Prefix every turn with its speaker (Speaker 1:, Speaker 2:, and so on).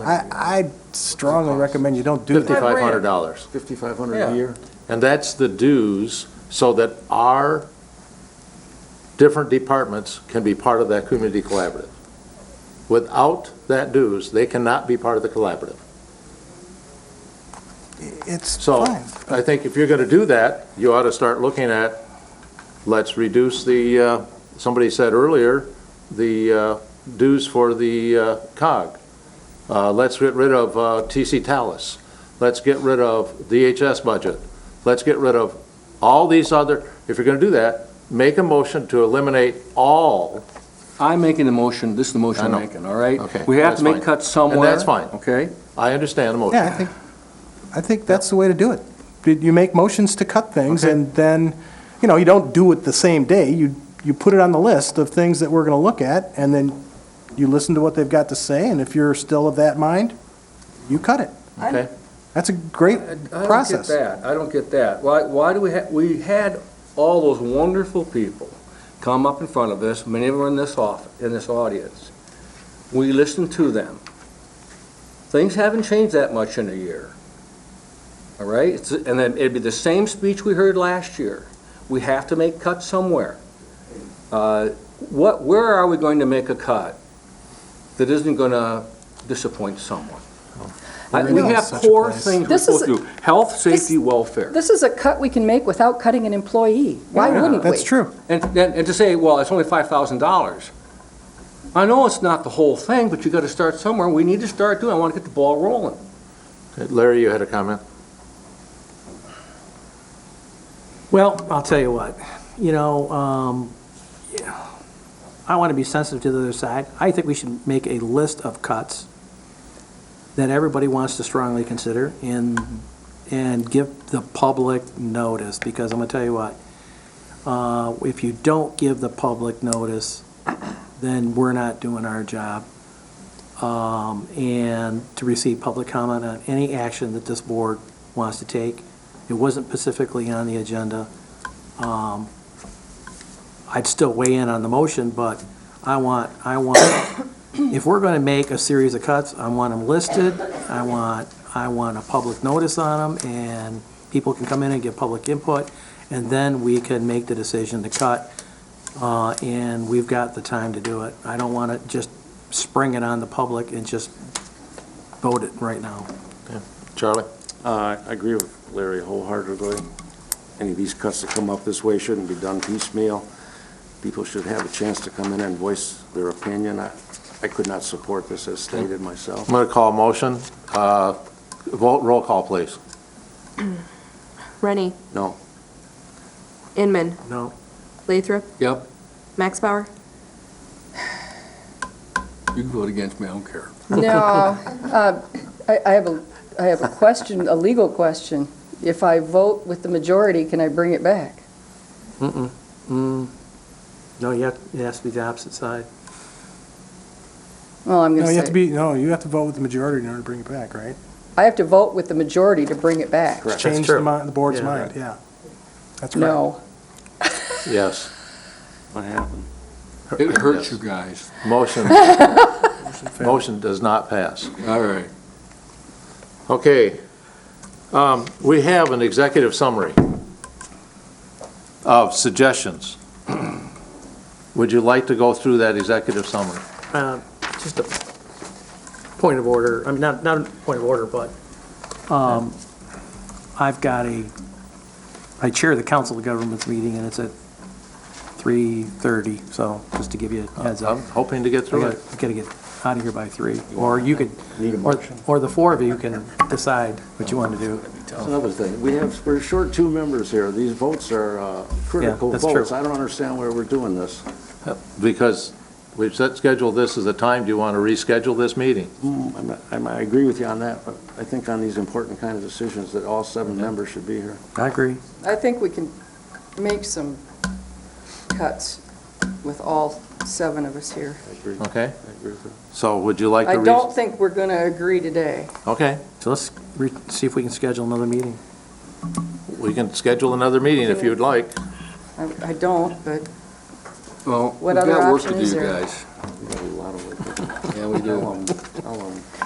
Speaker 1: I, I strongly recommend you don't do that.
Speaker 2: Fifty-five hundred
Speaker 3: Five
Speaker 2: dollars.
Speaker 4: Fifty-five hundred
Speaker 2: Yeah.
Speaker 4: a year?
Speaker 2: And that's the dues, so that our different departments can be part of that community collaborative. Without that dues, they cannot be part of the collaborative.
Speaker 1: It's
Speaker 2: So,
Speaker 1: fine.
Speaker 2: I think if you're gonna do that, you ought to start looking at, let's reduce the, uh, somebody said earlier, the uh, dues for the uh, COG. Uh, Let's get rid of uh, TC Talus. Let's get rid of DHS budget. Let's get rid of all these other, if you're gonna do that, make a motion to eliminate all.
Speaker 3: I'm making the motion, this is the
Speaker 2: I
Speaker 3: motion
Speaker 2: know.
Speaker 3: I'm making, all right?
Speaker 2: Okay,
Speaker 3: We have
Speaker 2: that's
Speaker 3: to make
Speaker 2: fine.
Speaker 3: cuts somewhere.
Speaker 2: that's fine.
Speaker 3: Okay?
Speaker 2: I understand the
Speaker 1: Yeah, I
Speaker 2: motion.
Speaker 1: think, I think that's the way to do it. Did You make motions to cut things,
Speaker 2: Okay.
Speaker 1: and then, you know, you don't do it the same day. You, you put it on the list of things that we're going to look at, and then you listen to what they've got to say, and if you're still of that mind, you cut it.
Speaker 2: Okay?
Speaker 1: That's a great process.
Speaker 3: I don't get that, I don't get that. Why, why do we have, we had all those wonderful people come up in front of us, many of them in this off, in this audience. We listened to them. Things haven't changed that much in a year. All right, It's- and then it'd be the same speech we heard last year. We have to make cuts somewhere. Uh, What, where are we going to make a cut that isn't gonna disappoint someone? I- We
Speaker 1: We're in
Speaker 3: have
Speaker 1: such a
Speaker 3: core
Speaker 1: place.
Speaker 3: things we're
Speaker 5: This is-
Speaker 3: supposed to do. Health, safety, welfare.
Speaker 5: This is a cut we can make without cutting an employee. Why
Speaker 3: Yeah,
Speaker 5: wouldn't we?
Speaker 1: That's true.
Speaker 3: And, and and to say, well, it's only five thousand dollars. I know it's not the whole thing, but you gotta start somewhere. We need to start doing, I wanna get the ball rolling.
Speaker 2: Larry, you had a comment?
Speaker 6: Well, I'll tell you what, you know, um, I want to be sensitive to the other side. I think we should make a list of cuts that everybody wants to strongly consider and, and give the public notice, because I'm going to tell you what, uh, if you don't give the public notice, then we're not doing our job. Um, And to receive public comment on any action that this board wants to take, it wasn't specifically on the agenda. Um, I'd still weigh in on the motion, but I want, I want, if we're going to make a series of cuts, I want them listed, I want, I want a public notice on them, and people can come in and give public input, and then we can make the decision to cut, uh, and we've got the time to do it. I don't want to just spring it on the public and just vote it right now.
Speaker 2: Charlie?
Speaker 7: Uh, I agree with Larry wholeheartedly. Any of these cuts that come up this way shouldn't be done piecemeal. People should have a chance to come in and voice their opinion. I I could not support this as stated myself.
Speaker 2: I'm gonna call a motion. Uh, Vote, roll call, please.
Speaker 8: Rennie,
Speaker 7: No,
Speaker 8: Inman,
Speaker 6: No?
Speaker 8: Lathrop,
Speaker 3: Yep,
Speaker 8: Max Bauer.
Speaker 3: you can vote against me, I don't care.
Speaker 5: No, uh, I I have a, I have a question, a legal question. If I vote with the majority, can I bring it back?
Speaker 6: Mm-mm. Mm. No, you have, it has to be the opposite side.
Speaker 5: Well, I'm
Speaker 1: No,
Speaker 5: going
Speaker 1: you have
Speaker 5: to
Speaker 1: to
Speaker 5: say,
Speaker 1: be, no, you have to vote with the majority in order to bring it back, right?
Speaker 5: I have to vote with the majority to bring it back.
Speaker 1: Correct. Change the mi- the board's
Speaker 6: Yeah.
Speaker 1: mind, yeah. That's right.
Speaker 5: No.
Speaker 2: Yes.
Speaker 7: what happened?
Speaker 3: It hurts you
Speaker 2: Yes.
Speaker 3: guys.
Speaker 2: Motion, motion does not pass.
Speaker 3: All right.
Speaker 2: Okay, um, we have an executive summary of suggestions. Would you like to go through that executive summary?
Speaker 6: Uh, Just a point of order, I mean, not, not a point of order, but um, I've got a, I chair the council of governments meeting, and it's at 3:30, so just to give you a heads up.
Speaker 2: Uh, I'm hoping to get
Speaker 6: I
Speaker 2: through
Speaker 6: gotta
Speaker 2: it.
Speaker 6: gotta get out of here by three, or you could, or or the four of you can decide what you want to do.
Speaker 7: That's another thing. We have, we're short two members here. These votes are uh, critical
Speaker 6: that's true.
Speaker 7: votes. I don't understand why we're doing this.
Speaker 2: Because we've set, scheduled this as a time, do you want to reschedule this meeting?
Speaker 7: Hmm, I'm not- I'm- I agree with you on that, but I think on these important kind of decisions that all seven members should be here.
Speaker 6: I agree.
Speaker 5: I think we can make some cuts with all seven of us here.
Speaker 7: I agree.
Speaker 2: Okay,
Speaker 7: I agree with you.
Speaker 2: so would you like to?
Speaker 5: I
Speaker 2: re-
Speaker 5: don't think we're going to agree today.
Speaker 2: Okay,
Speaker 6: So let's re- see if we can schedule another meeting.
Speaker 2: we can schedule another meeting if you'd like.
Speaker 5: I I don't, but
Speaker 3: Well,
Speaker 5: What
Speaker 3: we've got
Speaker 5: other
Speaker 3: work to
Speaker 5: option
Speaker 3: do,
Speaker 5: is
Speaker 3: you
Speaker 5: there?
Speaker 3: guys.
Speaker 7: We got a lot of work.
Speaker 3: Yeah, we do.
Speaker 7: I'll, um,